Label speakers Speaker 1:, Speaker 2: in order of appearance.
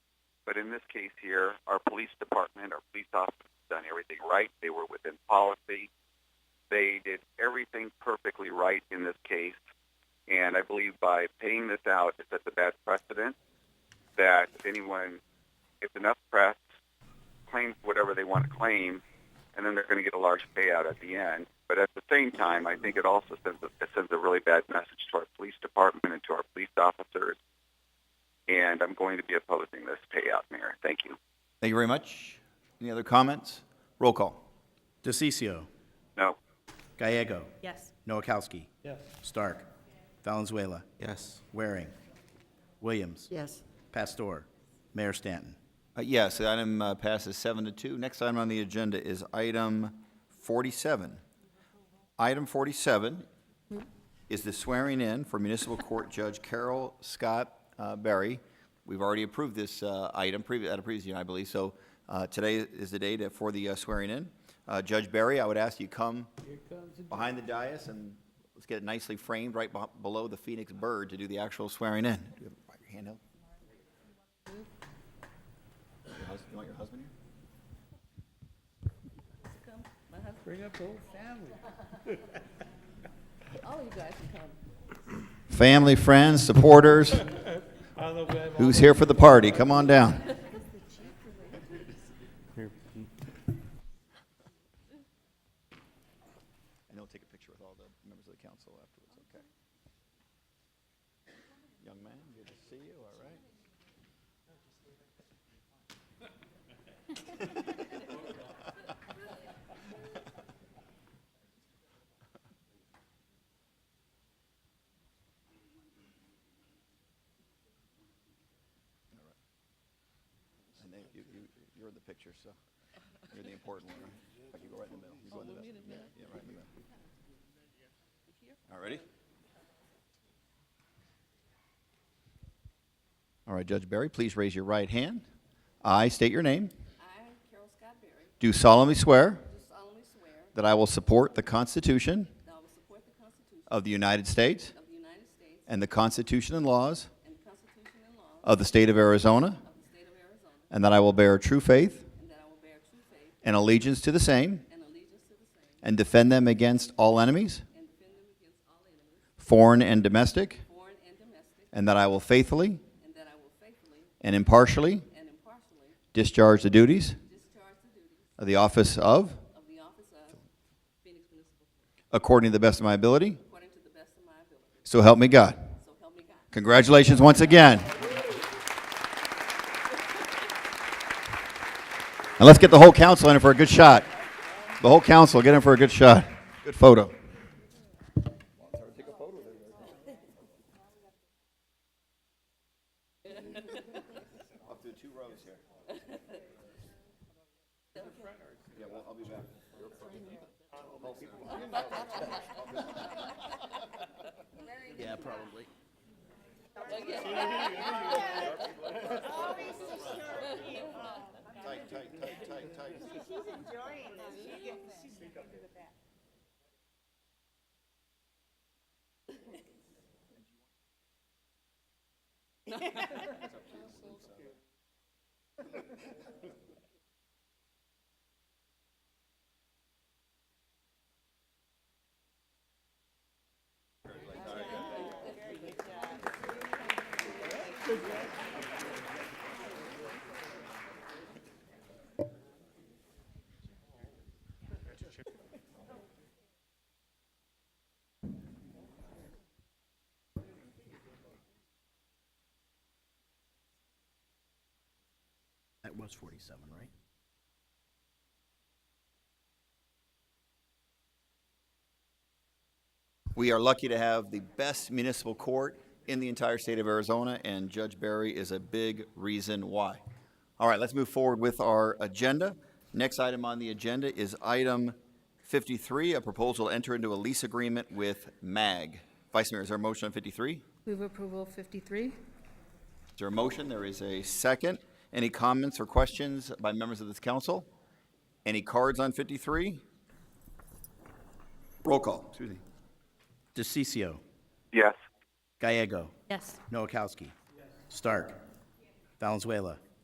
Speaker 1: But in this case here, our police department, our police officers done everything right. They were within policy. They did everything perfectly right in this case. And I believe by paying this out, it sets a bad precedent that if anyone, if enough press claims whatever they want to claim, and then they're going to get a large payout at the end. But at the same time, I think it also sends a, it sends a really bad message to our police department and to our police officers. And I'm going to be opposing this payout, Mayor. Thank you.
Speaker 2: Thank you very much. Any other comments? Roll call.
Speaker 3: DeCiccio.
Speaker 1: No.
Speaker 3: Gallego.
Speaker 4: Yes.
Speaker 3: Noakowski. Yes. Stark. Valenzuela.
Speaker 5: Yes.
Speaker 3: Waring. Williams.
Speaker 4: Yes.
Speaker 3: Pastor. Mayor Stanton.
Speaker 2: Uh, Yes, the item uh, passes seven to two. Next item on the agenda is item 47. Item 47 is the swearing in for Municipal Court Judge Carol Scott uh, Berry. We've already approved this uh, item previ- at a previous meeting, I believe, so uh, today is the day to- for the uh, swearing in. Uh, Judge Berry, I would ask you come behind the dais and let's get it nicely framed right beh- below the phoenix bird to do the actual swearing in. Do you have your hand up? Your hus- You want your husband here?
Speaker 6: Bring up the whole family.
Speaker 4: All you guys can come.
Speaker 2: family, friends, supporters,
Speaker 6: I don't know if we have all
Speaker 2: who's here for the party, come on down. And he'll take a picture with all the members of the council afterwards, okay? Young man, good to see you, all right? And they, you, you, you're in the picture, so you're the important one, right? Like you go right in the middle. You go in the middle. Yeah, right in the middle. All ready? All right, Judge Barry, please raise your right hand. I state your name.
Speaker 4: I, Carol Scott Berry,
Speaker 2: Do solemnly swear
Speaker 4: do solemnly swear
Speaker 2: that I will support the Constitution
Speaker 4: that I will support the Constitution
Speaker 2: of the United States
Speaker 4: of the United States
Speaker 2: and the Constitution and laws
Speaker 4: and the Constitution and laws
Speaker 2: of the state of Arizona,
Speaker 4: of the state of Arizona,
Speaker 2: and that I will bear true faith
Speaker 4: and that I will bear true faith
Speaker 2: and allegiance to the same
Speaker 4: and allegiance to the same,
Speaker 2: and defend them against all enemies,
Speaker 4: and defend them against all enemies,
Speaker 2: foreign and domestic,
Speaker 4: foreign and domestic,
Speaker 2: and that I will faithfully
Speaker 4: and that I will faithfully
Speaker 2: and impartially
Speaker 4: and impartially
Speaker 2: discharge the duties
Speaker 4: discharge the duties
Speaker 2: of the office of,
Speaker 4: of the office of Phoenix Municipal Court
Speaker 2: according to the best of my ability,
Speaker 4: according to the best of my ability.
Speaker 2: so help me God.
Speaker 4: So help me God.
Speaker 2: Congratulations once again. And let's get the whole council in for a good shot. The whole council, get in for a good shot. Good photo.
Speaker 3: That was 47, right?
Speaker 2: We are lucky to have the best municipal court in the entire state of Arizona, and Judge Barry is a big reason why. All right, let's move forward with our agenda. Next item on the agenda is item 53, a proposal to enter into a lease agreement with MAG. Vice Mayor, is there a motion on 53? Is
Speaker 7: Move approval of 53.
Speaker 2: there a motion? There is a second. Any comments or questions by members of this council? Any cards on 53? Roll call, excuse me.
Speaker 3: DeCiccio.
Speaker 1: Yes.
Speaker 3: Gallego.
Speaker 7: Yes.
Speaker 3: Noakowski. Stark. Valenzuela.